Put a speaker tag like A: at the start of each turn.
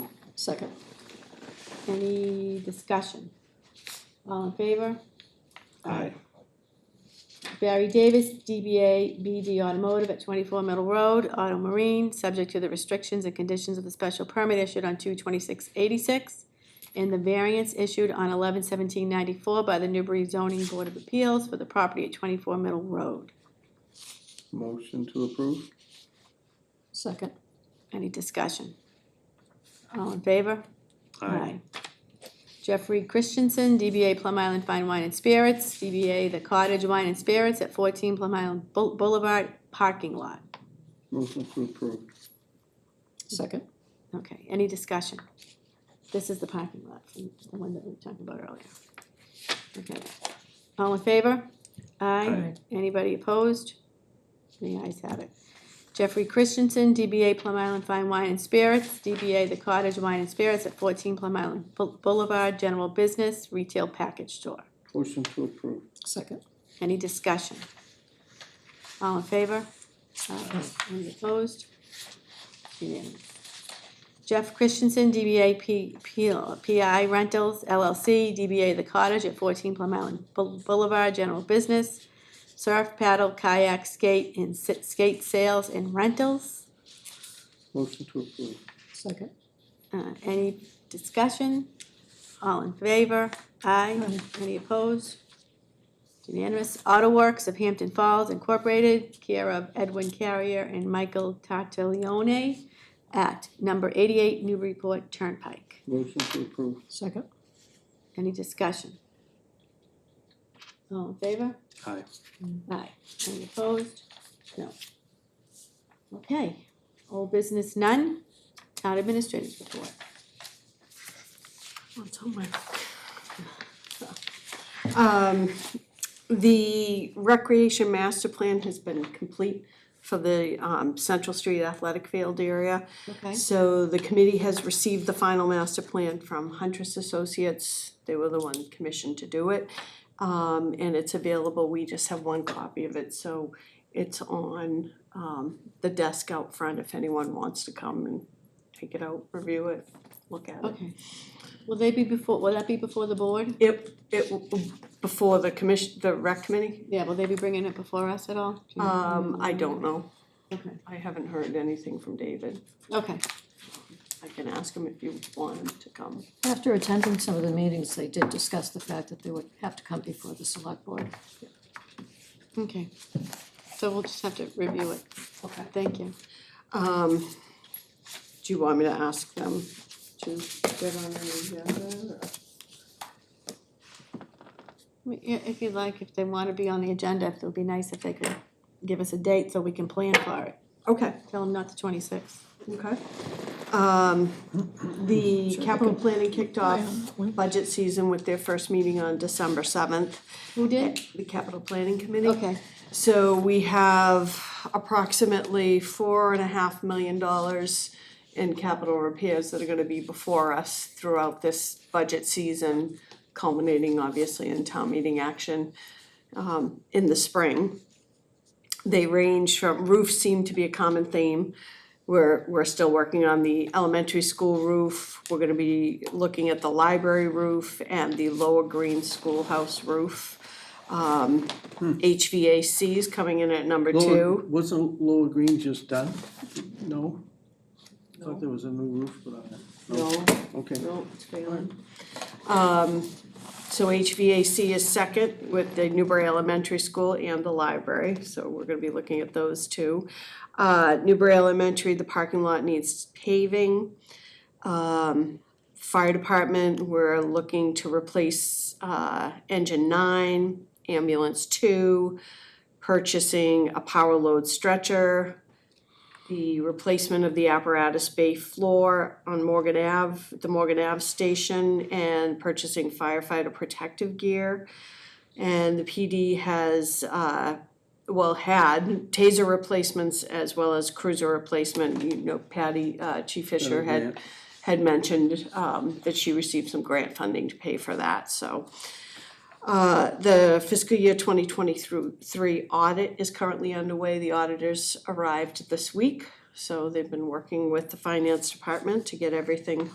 A: Second. Any discussion? All in favor?
B: Aye.
A: Barry Davis, DBA BD Automotive at 24 Middle Road, Auto Marine, subject to the restrictions and conditions of the special permit issued on 2/26/86 and the variance issued on 11/17/94 by the Newbury Zoning Board of Appeals for the property at 24 Middle Road.
B: Motion to approve?
A: Second. Any discussion? All in favor? Aye. Jeffrey Christensen, DBA Plum Island Fine Wine and Spirits, DBA The Cottage Wine and Spirits at 14 Plum Island Bou- Boulevard parking lot.
B: Motion to approve.
C: Second.
A: Okay, any discussion? This is the parking lot, the one that we talked about earlier. Okay, all in favor? Aye.
B: Aye.
A: Anybody opposed? The ayes have it. Jeffrey Christensen, DBA Plum Island Fine Wine and Spirits, DBA The Cottage Wine and Spirits at 14 Plum Island Bou- Boulevard, general business, retail package store.
B: Motion to approve.
C: Second.
A: Any discussion? All in favor? Aye. Any opposed? Unanimous. Jeff Christensen, DBA P- P- PI Rentals LLC, DBA The Cottage at 14 Plum Island Bou- Boulevard, general business, surf, paddle, kayak, skate, and sit- skate sales and rentals.
B: Motion to approve.
C: Second.
A: Uh, Any discussion? All in favor? Aye.
C: Aye.
A: Any opposed? Unanimous. Auto Works of Hampton Falls Incorporated, care of Edwin Carrier and Michael Tartaglione at number 88 Newburyport Turnpike.
B: Motion to approve.
C: Second.
A: Any discussion? All in favor?
B: Aye.
A: Aye. Any opposed? No. Okay. Old business none. Town administrators report.
C: What's homework? Um, the recreation master plan has been complete for the, um, Central Street Athletic Field area.
A: Okay.
C: So the committee has received the final master plan from Huntress Associates, they were the one commissioned to do it. Um, and it's available, we just have one copy of it, so it's on, um, the desk out front if anyone wants to come and take it out, review it, look at it.
A: Okay. Will they be before, will that be before the board?
C: It, it, w- before the commission, the rec committee,
A: Yeah, will they be bringing it before us at all? Do you know?
C: um, I don't know,
A: Okay,
C: I haven't heard anything from David.
A: okay,
C: I can ask him if you want him to come.
D: After attending some of the meetings, they did discuss the fact that they would have to come before the select board.
A: okay. So we'll just have to review it.
C: Okay.
A: Thank you.
C: Um, do you want me to ask them to get on an agenda?
A: I mean, i- If you'd like, if they want to be on the agenda, it would be nice if they could give us a date so we can plan for it.
C: Okay,
A: Tell them not the twenty-sixth.
C: okay. Um, the capital planning kicked off budget season with their first meeting on December seventh.
A: Who did?
C: The capital planning committee.
A: Okay,
C: So we have approximately four and a half million dollars in capital repairs that are gonna be before us throughout this budget season, culminating obviously in town meeting action um, in the spring. They range from, roofs seem to be a common theme. We're, we're still working on the elementary school roof. We're gonna be looking at the library roof and the lower green schoolhouse roof. Um, HVAC is coming in at number
B: Lower,
C: two.
B: wasn't Lower Green just done? No? I Thought there was a new roof put on it.
C: No,
B: Okay.
C: no, Oh, it's failing. Um, so HVAC is second with the Newbury Elementary School and the library, so we're gonna be looking at those two. Uh, Newbury Elementary, the parking lot needs paving. Um, fire department, we're looking to replace, uh, engine nine, ambulance two, purchasing a power load stretcher, the replacement of the apparatus bay floor on Morgan Ave, the Morgan Ave station, and purchasing firefighter protective gear. And the PD has, uh, well, had taser replacements as well as cruiser replacement. You know, Patty, uh, Chief Fisher had,
B: grant.
C: had mentioned, um, that she received some grant funding to pay for that, so. Uh, the fiscal year twenty twenty through three audit is currently underway. The auditors arrived this week. So they've been working with the finance department to get everything